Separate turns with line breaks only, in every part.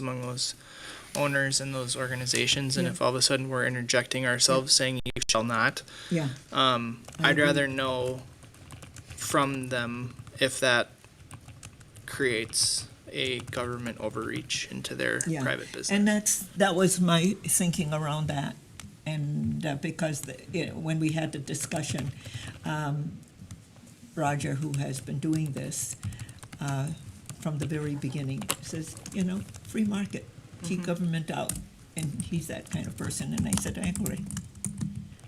among those owners and those organizations, and if all of a sudden we're interjecting ourselves saying you shall not,
Yeah,
um,
I
I'd
agree.
rather know from them if that creates a government overreach into their
yeah.
private business.
And that's, that was my thinking around that. And uh, because, the- you know, when we had the discussion, um, Roger, who has been doing this uh, from the very beginning, says, you know, free market, keep
Mm-hmm.
government out. And he's that kind of person, and I said, I agree.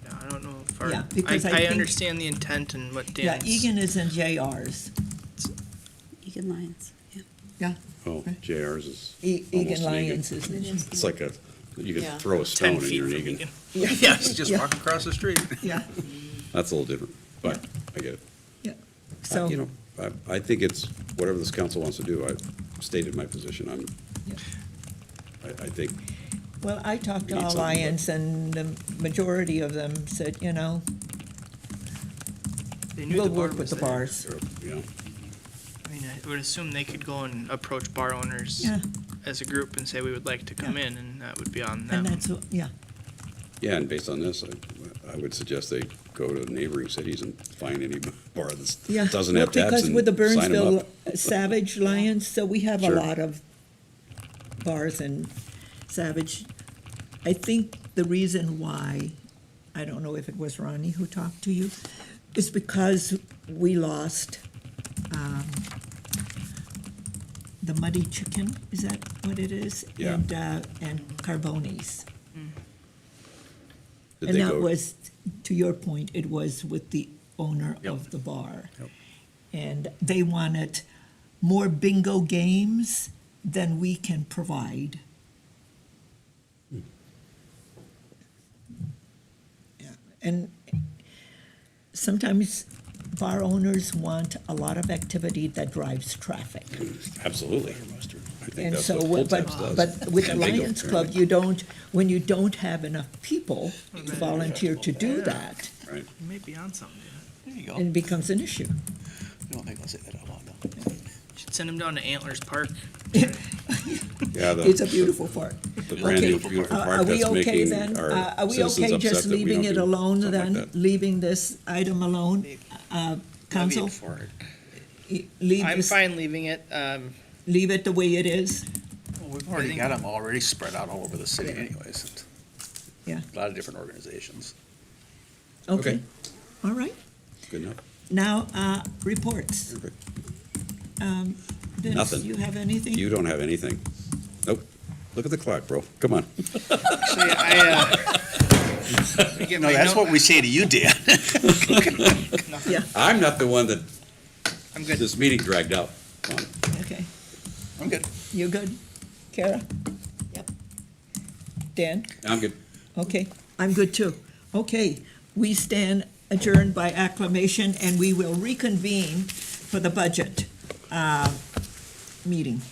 Yeah, I don't know if our,
Yeah,
I,
because I
I
think-
understand the intent and what
Yeah,
Dan's.
Egan is in JR's.
Egan Lyons, yeah.
Yeah.
Oh, JR's is.
E-
almost
Egan
an
Lyons is in.
It's like a, you
Yeah.
could throw a
10
stone and
feet
you're
from
an Egan.
Egan.
Yes, just
Yeah.
walk across the street.
Yeah,
That's a little different, but I get it.
yeah.
I-
So,
You know, I, I think it's, whatever this council wants to do, I've stated my position. I'm,
Yeah.
I, I think, uh,
well, I talked to
We need something, but-
Alliance, and the majority of them said, you know,
They knew
we'll
the bar
work with
was
the
there.
bars.
you know,
I mean, I would assume they could go and approach bar owners
Yeah,
as a group and say we would like to come in, and that would be on them.
and that's, what- yeah,
yeah, and based on this, I, I would suggest they go to neighboring cities and find any bar
yeah.
that doesn't
Well,
have taps
Because with the
and sign them
Burnsville
up.
Savage Lions, so we have a
Sure.
lot of bars and Savage. I think the reason why, I don't know if it was Ronnie who talked to you, is because we lost um, the Muddy Chicken, is that what it is?
Yeah.
And, uh, and Carboni's.
Did
And
they
that
go-
was, to your point, it was with the owner
Yep.
of the bar.
Yep.
And they wanted more bingo games than we can provide.
Hmm.
Yeah, And sometimes bar owners want a lot of activity that drives traffic.
Absolutely. I think
And
that's
so,
what full
but,
taps does.
but with the
And bingo.
Lions Club, you don't, when you don't have enough people volunteer to do that,
Right.
You might be on something. dude.
There you go.
it becomes an issue.
I don't think I'll say that out loud, though.
You should send them down to Antlers Park.
Yeah, the-
It's a beautiful park.
The Oh. brand new
Okay.
beautiful
Uh, Are
park
we
that's
okay
making
then? Uh, Are
our
we
citizens
okay
upset
just
that we
leaving
don't
it
do
alone
something
then,
like that.
leaving this item alone? Uh, Council,
For it.
y- leave
I'm
this,
fine leaving it. Um,
leave it the way it is?
We've
I
already
think-
got them already spread out all over the city anyways.
Yeah.
A lot of different organizations.
Okay, all right.
Good enough.
Now, uh, reports.
Perfect.
Um, Dennis,
Nothing.
you have anything?
You don't have anything. Nope. Look at the clock, bro. Come on.
actually, I, uh, let me get
No,
my
that's
note-
what we say to you, Dan.
Yeah,
I'm not the one that
I'm good.
this meeting dragged out. Come on.
okay.
I'm good.
You good? Kara? Yep. Dan?
I'm good.
Okay, I'm good too. Okay, we stand adjourned by acclamation, and we will reconvene for the budget uh, meeting.